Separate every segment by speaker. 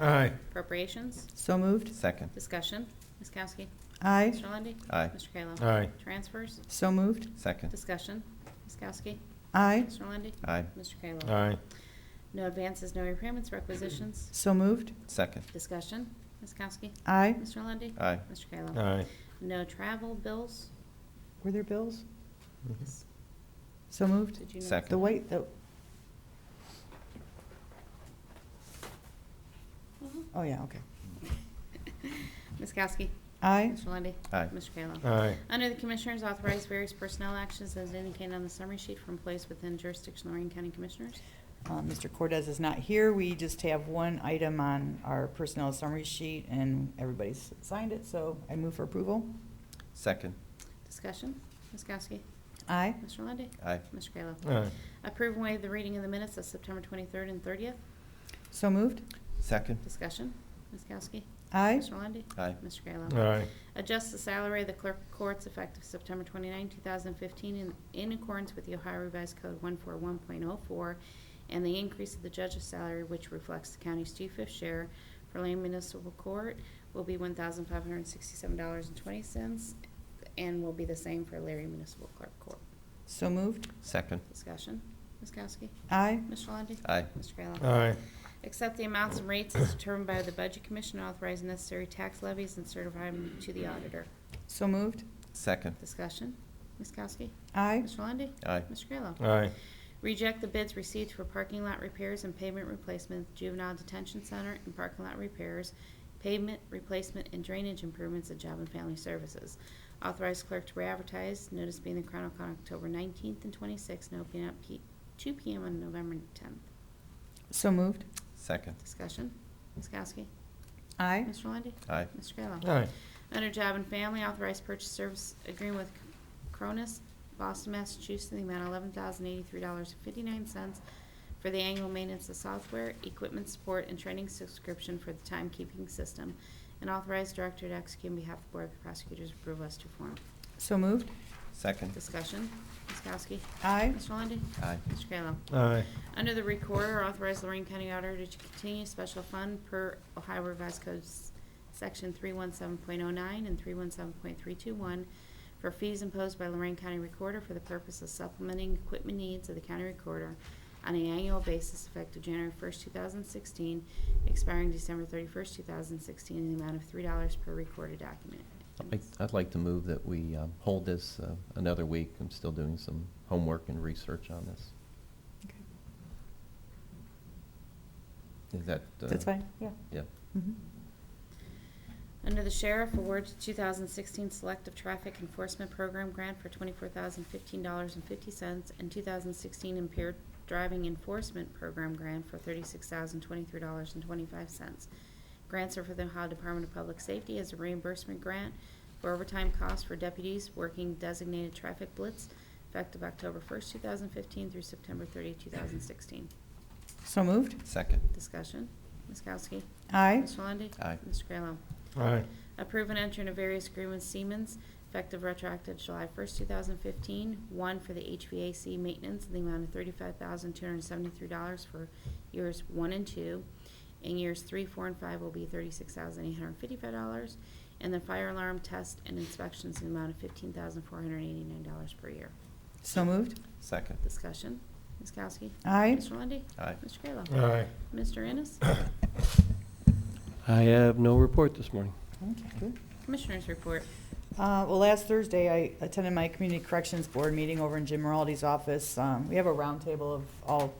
Speaker 1: Aye.
Speaker 2: Appropriations,
Speaker 3: So moved.
Speaker 4: Second.
Speaker 2: discussion, Ms. Kowski.
Speaker 3: Aye.
Speaker 2: Mr. Lundey.
Speaker 4: Aye.
Speaker 2: Mr. Kayla.
Speaker 1: Aye.
Speaker 2: Transfers,
Speaker 3: So moved.
Speaker 4: Second.
Speaker 2: discussion, Ms. Kowski.
Speaker 3: Aye.
Speaker 2: Mr. Lundey.
Speaker 4: Aye.
Speaker 2: Mr. Kayla.
Speaker 1: Aye.
Speaker 2: No advances, no repayments, requisitions,
Speaker 3: So moved.
Speaker 4: Second.
Speaker 2: discussion, Ms. Kowski.
Speaker 3: Aye.
Speaker 2: Mr. Lundey.
Speaker 4: Aye.
Speaker 2: Mr. Kayla.
Speaker 1: Aye.
Speaker 2: No travel bills.
Speaker 3: Were there bills?
Speaker 1: Mhm.
Speaker 3: So moved.
Speaker 2: Did you know-
Speaker 4: Second.
Speaker 3: The white, the,
Speaker 2: Mhm.
Speaker 3: oh yeah, okay.
Speaker 2: Ms. Kowski.
Speaker 3: Aye.
Speaker 2: Mr. Lundey.
Speaker 4: Aye.
Speaker 2: Mr. Kayla.
Speaker 1: Aye.
Speaker 2: Under the Commissioners, authorize various personnel actions as indicated on the summary sheet from place within jurisdiction of Lorraine County Commissioners.
Speaker 3: Uh, Mr. Cortez is not here. We just have one item on our personnel summary sheet, and everybody's signed it, so I move for approval.
Speaker 4: Second.
Speaker 2: Discussion, Ms. Kowski.
Speaker 3: Aye.
Speaker 2: Mr. Lundey.
Speaker 4: Aye.
Speaker 2: Mr. Kayla.
Speaker 1: Aye.
Speaker 2: Approve and waive the reading of the minutes of September 23rd and 30th.
Speaker 3: So moved.
Speaker 4: Second.
Speaker 2: Discussion, Ms. Kowski.
Speaker 3: Aye.
Speaker 2: Mr. Lundey.
Speaker 4: Aye.
Speaker 2: Mr. Kayla.
Speaker 1: Aye.
Speaker 2: Adjust the salary of the clerk of courts effective September 29, 2015, in- in accordance with the Ohio Revised Code 141.04, and the increase of the judge's salary, which reflects the county's two-fifth share for Lane Municipal Court, will be $1,567.20, and will be the same for Larry Municipal Clerk Court.
Speaker 3: So moved.
Speaker 4: Second.
Speaker 2: Discussion, Ms. Kowski.
Speaker 3: Aye.
Speaker 2: Mr. Lundey.
Speaker 4: Aye.
Speaker 2: Mr. Kayla.
Speaker 1: Aye.
Speaker 2: Accept the amounts and rates as determined by the Budget Commission, authorize necessary tax levies, and certify them to the auditor.
Speaker 3: So moved.
Speaker 4: Second.
Speaker 2: Discussion, Ms. Kowski.
Speaker 3: Aye.
Speaker 2: Mr. Lundy,
Speaker 4: Aye.
Speaker 2: Mr. Kayla.
Speaker 1: Aye.
Speaker 2: Reject the bids received for parking lot repairs and pavement replacement, juvenile detention center and parking lot repairs, pavement replacement and drainage improvements at Job and Family Services. Authorize clerk to re-advertise, notice being in the Chronicle on October 19th and 26th, and opening at P- 2 PM on November 10th.
Speaker 3: So moved.
Speaker 4: Second.
Speaker 2: Discussion, Ms. Kowski.
Speaker 3: Aye.
Speaker 2: Mr. Lundy,
Speaker 4: Aye.
Speaker 2: Mr. Kayla.
Speaker 1: Aye.
Speaker 2: Under Job and Family, authorized purchase service agreement with Cronus, Boston, Massachusetts, in the amount of eleven thousand eighty-three dollars and fifty-nine cents for the annual maintenance of software, equipment support, and training subscription for the timekeeping system, and authorized director to execute on behalf of the Board of Prosecutors approve as to form.
Speaker 3: So moved.
Speaker 4: Second.
Speaker 2: Discussion, Ms. Kowski.
Speaker 3: Aye.
Speaker 2: Mr. Lundey.
Speaker 4: Aye.
Speaker 2: Mr. Kayla.
Speaker 1: Aye.
Speaker 2: Under the Recorder, authorize Lorraine County Auditor to continue special fund per Ohio Revised Code s- Section 317.09 and 317.321 for fees imposed by Lorraine County Recorder for the purpose of supplementing equipment needs of the county recorder on an annual basis effective January 1st, 2016, expiring December 31st, 2016, in the amount of $3 per recorded document.
Speaker 5: I'd like- I'd like to move that we um, hold this uh, another week. I'm still doing some homework and research on this. Is that? uh,
Speaker 3: That's fine. Yeah.
Speaker 5: Yeah.
Speaker 3: Mhm.
Speaker 2: Under the Sheriff, award to 2016 Selective Traffic Enforcement Program Grant for $24,015.50 and 2016 Impaired Driving Enforcement Program Grant for $36,023.25. Grants are for the Ohio Department of Public Safety as a reimbursement grant for overtime costs for deputies working designated traffic blitz effective October 1st, 2015 through September 30, 2016.
Speaker 3: So moved.
Speaker 4: Second.
Speaker 2: Discussion. Ms. Kowski.
Speaker 3: Aye.
Speaker 2: Mr. Lundey.
Speaker 4: Aye.
Speaker 2: Mr. Kayla.
Speaker 1: Aye.
Speaker 2: Approve and enter into various agreements Siemens, effective retroactive July 1st, 2015. One for the HVAC maintenance in the amount of $35,273 for years one and two. In years three, four, and five will be $36,855. And the fire alarm test and inspections in the amount of $15,489 per year.
Speaker 3: So moved.
Speaker 4: Second.
Speaker 2: Discussion. Ms. Kowski?
Speaker 3: Aye.
Speaker 2: Mr. Lundey?
Speaker 4: Aye.
Speaker 2: Mr. Kayla?
Speaker 1: Aye.
Speaker 2: Mr. Ennis?
Speaker 5: I have no report this morning.
Speaker 3: Okay, good.
Speaker 2: Commissioners report.
Speaker 3: Uh, Well, last Thursday, I attended my Community Corrections Board meeting over in Jim Maraldi's office. Um, We have a roundtable of all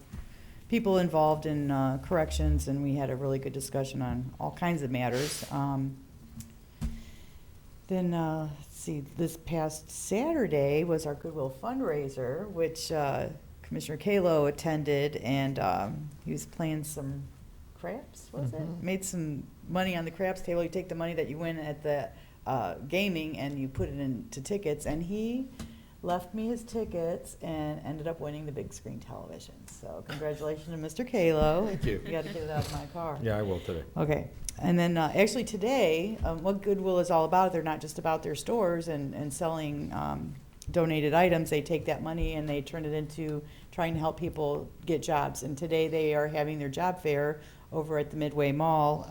Speaker 3: people involved in uh, corrections, and we had a really good discussion on all kinds of matters. Um, Then, uh, let's see, this past Saturday was our Goodwill fundraiser, which uh, Commissioner Kalo attended, and um, he was playing some craps, was it?
Speaker 1: Mhm.
Speaker 3: Made some money on the craps table. You take the money that you win at the uh, gaming and you put it into tickets, and he left me his tickets and ended up winning the big screen television. So congratulations to Mr. Kalo.
Speaker 1: Thank you.
Speaker 3: You got to get it out of my car.
Speaker 1: Yeah, I will today.
Speaker 3: Okay, and then uh, actually today, um, what Goodwill is all about, they're not just about their stores and, and selling um, donated items. They take that money and they turn it into trying to help people get jobs. And today they are having their job fair over at the Midway Mall.